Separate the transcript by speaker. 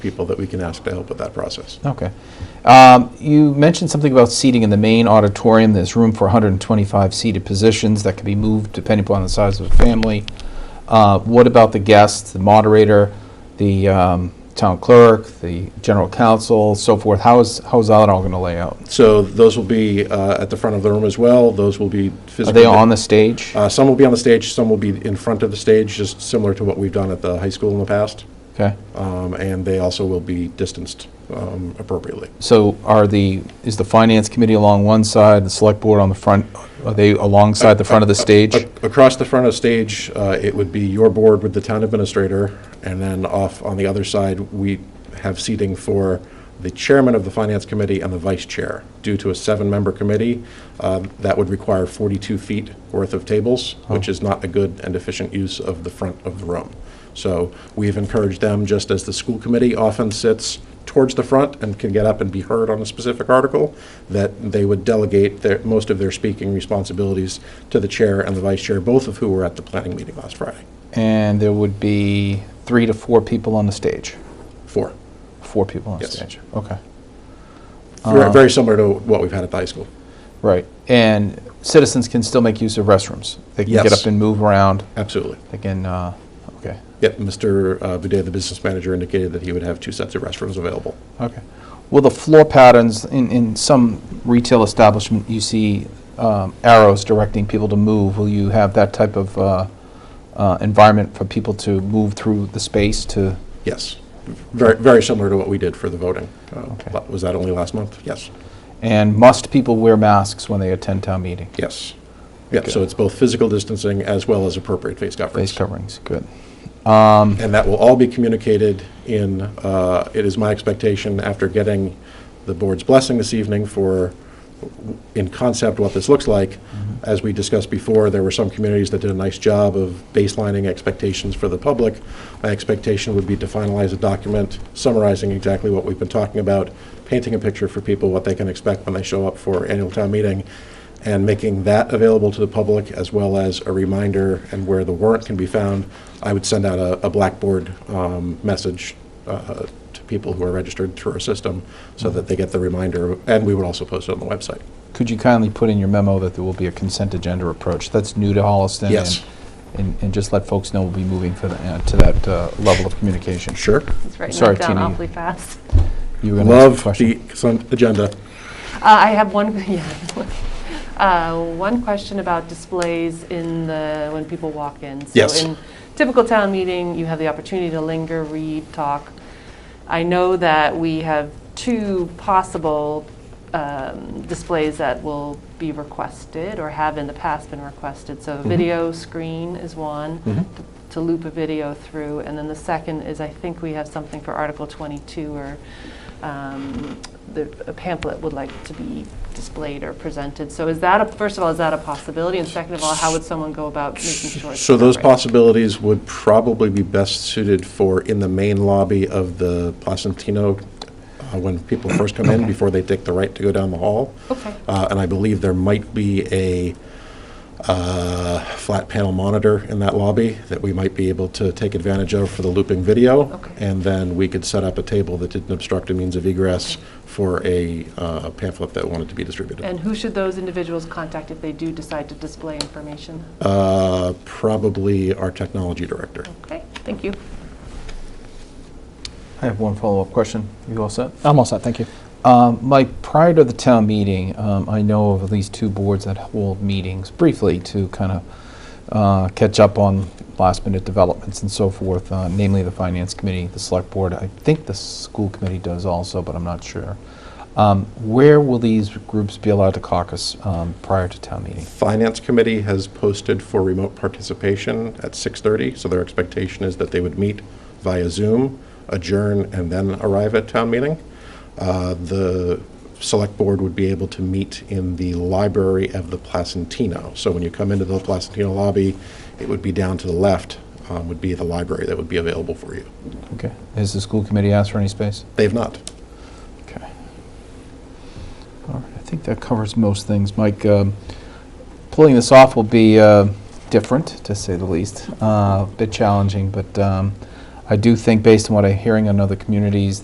Speaker 1: people that we can ask to help with that process.
Speaker 2: Okay. Um, You mentioned something about seating in the main auditorium. There's room for 125 seated positions that can be moved depending upon the size of the family. Uh, What about the guests, the moderator, the um, town clerk, the general counsel, so forth? How is, how is that all going to lay out?
Speaker 1: So those will be uh, at the front of the room as well. Those will be
Speaker 2: Are
Speaker 1: physically.
Speaker 2: they on the stage?
Speaker 1: Uh, Some will be on the stage, some will be in front of the stage, just similar to what we've done at the high school in the past.
Speaker 2: Okay.
Speaker 1: Um, And they also will be distanced um, appropriately.
Speaker 2: So are the, is the finance committee along one side, the select board on the front, are they alongside the front of the
Speaker 1: Uh,
Speaker 2: stage?
Speaker 1: A- Across the front of stage, uh, it would be your board with the town administrator, and then off on the other side, we have seating for the chairman of the finance committee and the vice chair. Due to a seven-member committee, um, that would require 42 feet worth of tables, which is not a good and efficient use of the front of the room. So we've encouraged them, just as the school committee often sits towards the front and can get up and be heard on a specific article, that they would delegate their, most of their speaking responsibilities to the chair and the vice chair, both of who were at the planning meeting last Friday.
Speaker 2: And there would be three to four people on the stage?
Speaker 1: Four.
Speaker 2: Four people on
Speaker 1: Yes.
Speaker 2: stage. Okay,
Speaker 1: Very very similar to what we've had at the high school.
Speaker 2: right. And citizens can still make use of restrooms. They can get
Speaker 1: Yes.
Speaker 2: up and move around.
Speaker 1: Absolutely.
Speaker 2: They can, uh, okay,
Speaker 1: Yep, Mr. uh, Boudet, the business manager, indicated that he would have two sets of restrooms available.
Speaker 2: okay. Well, the floor patterns in, in some retail establishment, you see um, arrows directing people to move. Will you have that type of uh, uh, environment for people to move through the space to?
Speaker 1: Yes. Very, very similar to what we did for the voting. Uh,
Speaker 2: Okay.
Speaker 1: la- Was that only last month? Yes.
Speaker 2: And must people wear masks when they attend town meeting?
Speaker 1: Yes. Yeah, so it's both physical distancing as well as appropriate face coverings.
Speaker 2: Face coverings, good.
Speaker 1: And that will all be communicated in, uh, it is my expectation, after getting the board's blessing this evening for, in concept, what this looks like. As we discussed before, there were some communities that did a nice job of baselining expectations for the public. My expectation would be to finalize a document summarizing exactly what we've been talking about, painting a picture for people, what they can expect when they show up for annual town meeting, and making that available to the public as well as a reminder and where the warrant can be found. I would send out a, a Blackboard um, message uh, to people who are registered through our system so that they get the reminder, and we would also post it on the website.
Speaker 2: Could you kindly put in your memo that there will be a consent agenda approach? That's new to Holliston. and-
Speaker 1: Yes.
Speaker 2: And, and just let folks know we'll be moving for the, uh, to that uh, level of communication.
Speaker 1: Sure.
Speaker 3: It's writing
Speaker 2: Sorry,
Speaker 3: that down
Speaker 2: Tina, you-
Speaker 3: awfully fast.
Speaker 2: You were gonna ask a
Speaker 1: Love
Speaker 2: question.
Speaker 1: the consent agenda.
Speaker 3: Uh, I have one, yeah, uh, one question about displays in the, when people walk in.
Speaker 1: Yes.
Speaker 3: So in typical town meeting, you have the opportunity to linger, read, talk. I know that we have two possible um, displays that will be requested or have in the past been requested.
Speaker 1: Mm-hmm.
Speaker 3: So a video screen is one to- to loop a video through, and then the second is, I think we have something for Article 22 or um, the a pamphlet would like to be displayed or presented. So is that, a first of all, is that a possibility? And second of all, how would someone go about making sure? it's
Speaker 1: So those
Speaker 3: covered?
Speaker 1: possibilities would probably be best suited for in the main lobby of the Placentino, uh, when people first come in, before they take the right to go down the hall.
Speaker 3: Okay.
Speaker 1: Uh, And I believe there might be a uh, flat panel monitor in that lobby that we might be able to take advantage of for the looping video.
Speaker 3: Okay.
Speaker 1: And then we could set up a table that didn't obstruct a means of egress for a uh, pamphlet that wanted to be distributed.
Speaker 3: And who should those individuals contact if they do decide to display information?
Speaker 1: Uh, Probably our technology director.
Speaker 3: Okay, thank you.
Speaker 2: I have one follow-up question. You all set?
Speaker 4: I'm all set, thank you.
Speaker 2: Um, Mike, prior to the town meeting, um, I know of at least two boards that hold meetings briefly to kind of uh, catch up on last-minute developments and so forth, uh, namely the Finance Committee, the Select Board. I think the School Committee does also, but I'm not sure. Um, Where will these groups be allowed to caucus um, prior to town meeting?
Speaker 1: Finance Committee has posted for remote participation at 6:30, so their expectation is that they would meet via Zoom, adjourn, and then arrive at town meeting. Uh, The Select Board would be able to meet in the library of the Placentino. So when you come into the Placentino lobby, it would be down to the left, um, would be the library that would be available for you.
Speaker 2: Okay. Has the School Committee asked for any space?
Speaker 1: They have not.
Speaker 2: Okay. All right, I think that covers most things. Mike, um, pulling this off will be uh, different, to say the least, Uh, a bit challenging, but um, I do think, based on what I'm hearing on other communities,